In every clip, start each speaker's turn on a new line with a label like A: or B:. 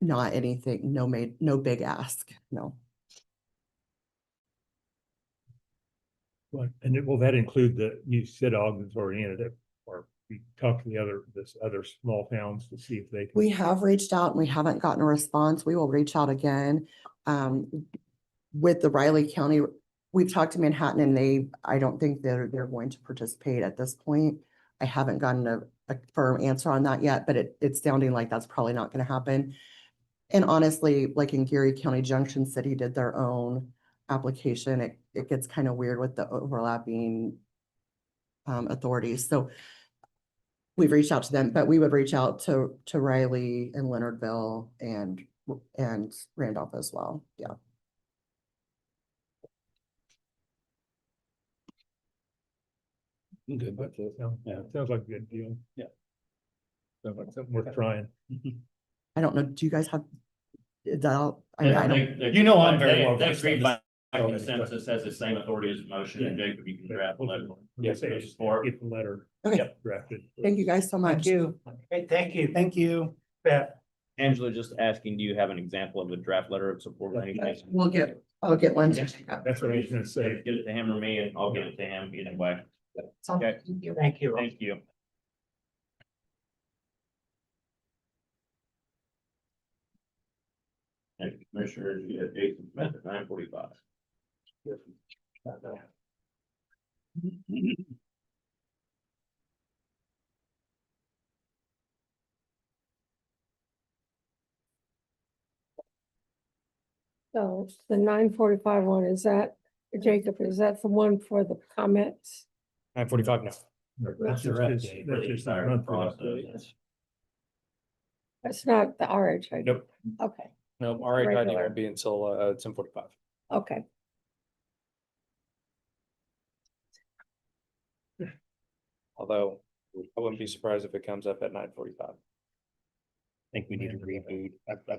A: not anything, no made, no big ask, no.
B: Right, and it- will that include the, you said Ogden's already in it, or you talk to the other, this other small towns to see if they. can-
A: We have reached out and we haven't gotten a response. We will reach out again. Um, with the Riley County, we've talked to Manhattan and they, I don't think they're, they're going to participate at this point. I haven't gotten a, a firm answer on that yet, but it, it's sounding like that's probably not gonna happen. And honestly, like in Geary County, Junction City did their own application. It, it gets kind of weird with the overlapping um, authorities. So we've reached out to them, but we would reach out to, to Riley and Leonardville and, and Randolph as well. Yeah.
C: I'm good
B: But
C: with
B: it
C: it.
B: sounds-
C: Yeah.
B: Sounds like a good deal.
C: Yeah.
B: Sounds like something worth trying.
A: I don't know, do you guys have, is that all? I mean,
C: Yeah,
A: I don't,
C: You know I'm very
D: They-
C: well
D: they
C: versed
D: agreed
C: on
D: by by
B: Okay.
D: Consensus has the same authority as the motion, and Jacob, you can draft a letter.
B: Yes,
D: Yes,
B: it's-
D: support.
B: Get the letter
A: okay,
B: drafted.
A: thank you guys so much.
C: you. Hey, thank you. Thank you. Yeah.
D: Angela, just asking, do you have an example of a draft letter of support or anything?
A: We'll get, I'll get one. to check out.
B: That's what I was gonna say.
D: Get it to him or me, and I'll get it to him either way.
A: So,
D: Okay.
A: thank you.
C: Thank you.
D: Thank you. Thank you, Commissioners, you have Jason Smith at nine forty-five.
E: So the nine forty-five one, is that, Jacob, is that the one for the comments?
C: Nine forty-five now.
B: That's just- that's just- that's just a month for us.
E: That's not the RHID?
C: Nope.
E: Okay,
C: No, all right, I think
E: Regular.
C: it'll be until uh ten forty-five.
E: okay.
C: Although I wouldn't be surprised if it comes up at nine forty-five.
F: think we need to reboot. I, I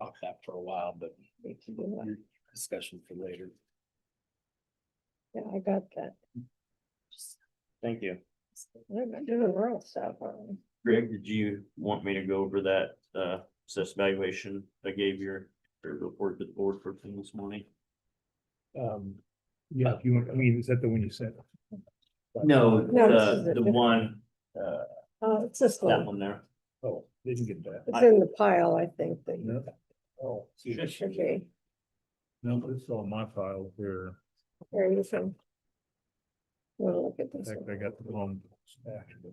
F: thought that for a while, but discussion for later.
E: Yeah, I got that.
D: Thank you.
E: They're not doing real stuff, are they?
D: Greg, did you want me to go over that uh assessed valuation I gave your your report to the board for this morning?
B: Um, yeah, if you, want- I mean, is that the one you said?
D: No,
E: No, this is
D: Uh, the
E: a
D: the
E: different-
D: one, uh,
E: Oh, it's this
D: that
E: one.
D: one there.
B: Oh, didn't get that.
E: It's in the pile, I think, that you
B: No. Oh,
E: it should be.
B: no, this is all my file here.
E: There you go. We'll look at
B: In
E: this
B: fact, I
E: one.
B: got the wrong. actually.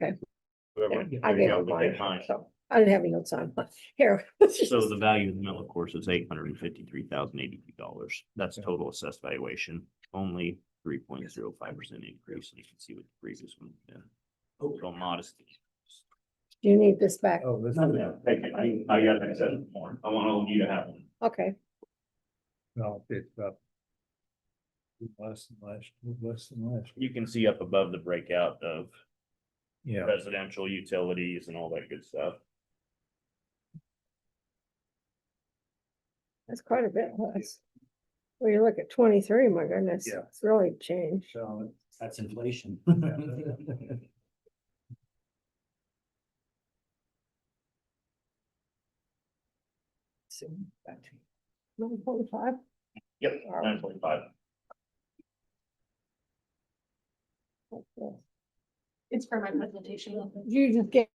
D: whatever.
B: Yeah,
E: I
D: There you
E: gave
D: go,
E: it
D: but they
E: mine,
D: find it.
E: so I didn't have any notes on, but here.
D: So the value of the mill, of course, is eight hundred and fifty-three thousand eighty-two dollars. That's total assessed valuation, only three point zero five percent increase. You can see what the previous one, yeah. Overall modesty.
E: You need this back,
B: Oh, this.
D: take it. I, I got that said more. I want all of you to have one.
E: okay,
B: No, it's up. Less than last, less than last.
D: You can see up above the breakout of
B: Yeah.
D: residential utilities and all that good stuff.
E: that's quite a bit less. When you look at twenty-three, my goodness,
B: Yeah.
E: it's really changed.
F: So that's inflation.
E: Nine point five?
D: Yep, nine point five.
G: It's for my presentation.
E: You just gave,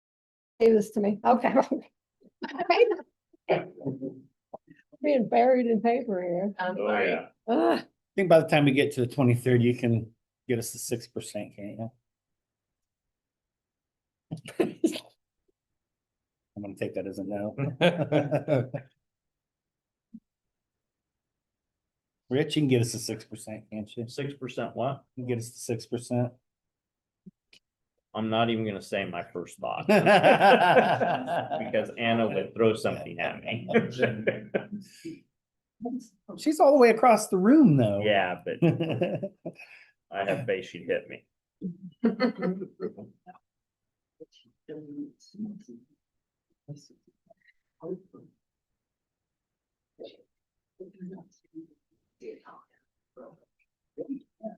E: gave this to me, okay. Being buried in paper here.
G: Um,
D: Oh, yeah.
E: Ah,
F: I think by the time we get to the twenty-third, you can get us to six percent, can't you? I'm gonna take that as a no. Rich, you can get us to six percent, can't you?
D: Six percent what?
F: You can Get us to six percent.
D: I'm not even gonna say my first thought. Because
F: Because
D: Anna would throw something at me.
F: She's all the way across the room, though.
D: Yeah, but I have faith she'd hit me.